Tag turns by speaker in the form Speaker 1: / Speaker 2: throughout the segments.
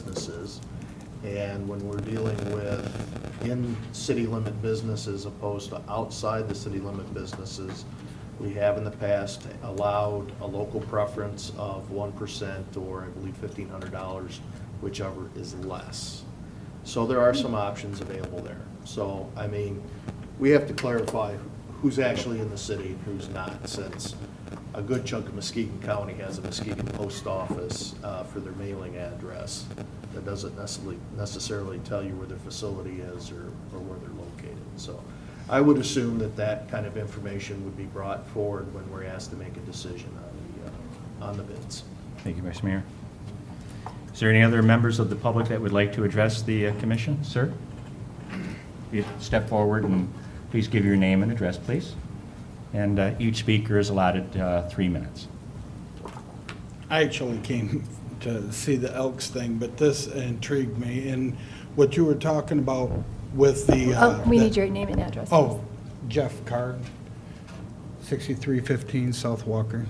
Speaker 1: businesses. And when we're dealing with in-city limit businesses opposed to outside the city limit businesses, we have in the past allowed a local preference of one percent or I believe fifteen hundred dollars, whichever is less. So there are some options available there. So, I mean, we have to clarify who's actually in the city and who's not, since a good chunk of Muskegon County has a Muskegon post office uh, for their mailing address. That doesn't necessarily, necessarily tell you where their facility is or, or where they're located. So I would assume that that kind of information would be brought forward when we're asked to make a decision on the, uh, on the bids.
Speaker 2: Thank you, Vice Mayor. Is there any other members of the public that would like to address the uh, commission, sir? You Step forward and please give your name and address, please. And uh, each speaker is allotted uh, three minutes.
Speaker 3: I actually came to see the Elks thing, but this intrigued me, and what you were talking about with the. uh,
Speaker 4: Oh, we
Speaker 3: the-
Speaker 4: need your name and address.
Speaker 3: Oh, Jeff Card, 6315 South Walker.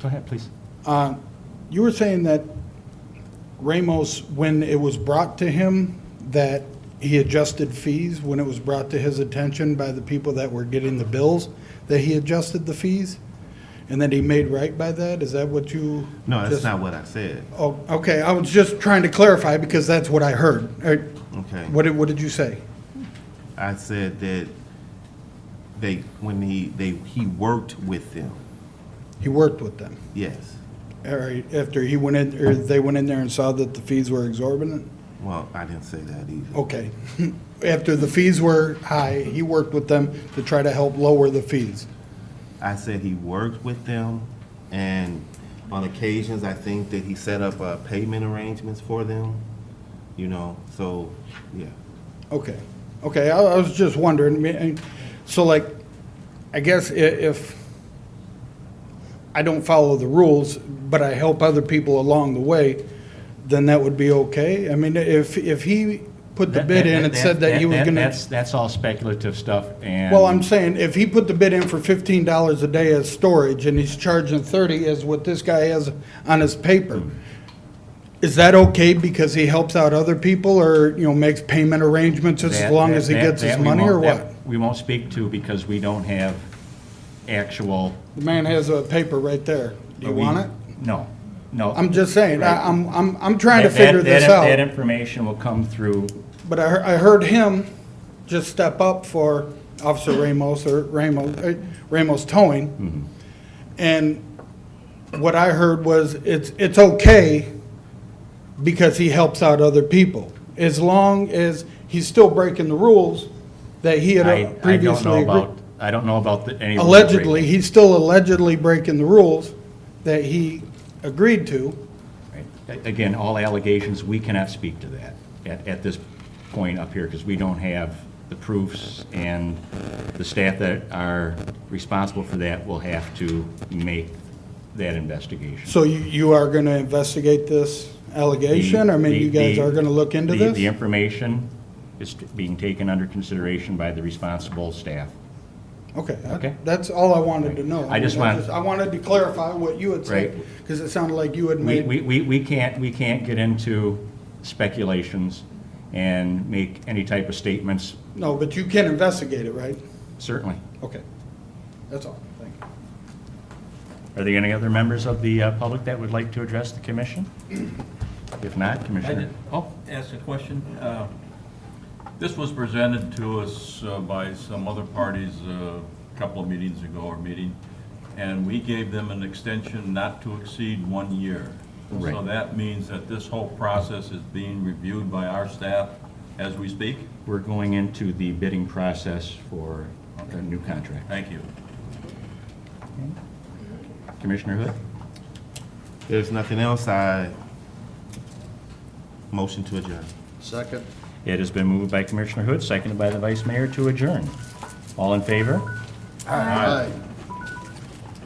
Speaker 2: Go ahead, please.
Speaker 3: Uh, You were saying that Ramos, when it was brought to him, that he adjusted fees, when it was brought to his attention by the people that were getting the bills, that he adjusted the fees? And that he made right by that? Is that what you?
Speaker 5: No, that's
Speaker 3: just-
Speaker 5: not what I said.
Speaker 3: Oh, okay, I was just trying to clarify because that's what I heard. Uh,
Speaker 5: Okay.
Speaker 3: What did, what did you say?
Speaker 5: I said that they, when he, they, he worked with them.
Speaker 3: He worked with them,
Speaker 5: Yes.
Speaker 3: all right, after he went in, or they went in there and saw that the fees were exorbitant?
Speaker 5: Well, I didn't say that either.
Speaker 3: Okay, after the fees were high, he worked with them to try to help lower the fees.
Speaker 5: I said he worked with them and on occasions, I think that he set up uh, payment arrangements for them, you know, so, yeah.
Speaker 3: Okay, okay, I, I was just wondering, I mean, and- so like, I guess i- if I don't follow the rules, but I help other people along the way, then that would be okay? I mean, if, if he put the bid in and said that he was gonna,
Speaker 2: That's, that's all speculative stuff and.
Speaker 3: well, I'm saying, if he put the bid in for fifteen dollars a day as storage and he's charging thirty as what this guy has on his paper, is that okay because he helps out other people or, you know, makes payment arrangements just as
Speaker 2: That-
Speaker 3: long
Speaker 2: that-
Speaker 3: as he
Speaker 2: that-
Speaker 3: gets
Speaker 2: that
Speaker 3: his
Speaker 2: we
Speaker 3: money or
Speaker 2: won't- that
Speaker 3: what?
Speaker 2: We won't speak to because we don't have actual.
Speaker 3: The man has a paper right there. Do you
Speaker 2: we-
Speaker 3: want it?
Speaker 2: No, no.
Speaker 3: I'm just saying, I, I'm, I'm, I'm trying to
Speaker 2: That- that-
Speaker 3: figure this
Speaker 2: that- That
Speaker 3: out.
Speaker 2: information will come through
Speaker 3: But I, hear- I heard him just step up for Officer Ramos or Ramos, uh, Ramos
Speaker 2: Mm-hmm.
Speaker 3: Towing. And what I heard was it's, it's okay because he helps out other people. As long as he's still breaking the rules that he
Speaker 2: I,
Speaker 3: had uh,
Speaker 2: I don't know
Speaker 3: previously agreed.
Speaker 2: about, I don't know about the- any.
Speaker 3: allegedly, he's still allegedly breaking the rules that he agreed to.
Speaker 2: Right. A- Again, all allegations, we cannot speak to that at, at this point up here because we don't have the proofs and the staff that are responsible for that will have to make that investigation.
Speaker 3: So you, you are gonna investigate this allegation? I mean, you
Speaker 2: The- the-
Speaker 3: guys are gonna look into
Speaker 2: the- The
Speaker 3: this?
Speaker 2: information is being taken under consideration by the responsible staff.
Speaker 3: Okay,
Speaker 2: Okay.
Speaker 3: that- that's all I wanted to know.
Speaker 2: I just
Speaker 3: mean,
Speaker 2: want-
Speaker 3: I wanted to clarify what you had said,
Speaker 2: Right.
Speaker 3: because it sounded like you had
Speaker 2: We,
Speaker 3: made,
Speaker 2: we, we we can't, we can't get into speculations and make any type of statements,
Speaker 3: no, but you can investigate it, right?
Speaker 2: certainly.
Speaker 3: Okay, that's all, thank you.
Speaker 2: Are there any other members of the uh, public that would like to address the commission? If not,
Speaker 6: I
Speaker 2: Commissioner.
Speaker 6: did I'll ask a question. Uh, This was presented to us uh, by some other parties uh, a couple of meetings ago or meeting, and we gave them an extension not to exceed one year. So
Speaker 2: Right.
Speaker 6: that means that this whole process is being reviewed by our staff as we speak?
Speaker 2: We're going into the bidding process for a new contract.
Speaker 6: Thank you.
Speaker 2: Commissioner Hood?
Speaker 5: There's nothing else, I motion to adjourn.
Speaker 1: Second?
Speaker 2: It has been moved by Commissioner Hood, seconded by the Vice Mayor to adjourn. All in favor?
Speaker 1: Aye.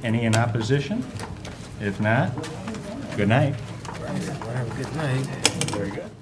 Speaker 2: Any in opposition? If not, good night.
Speaker 7: Have a good night.
Speaker 2: Very good.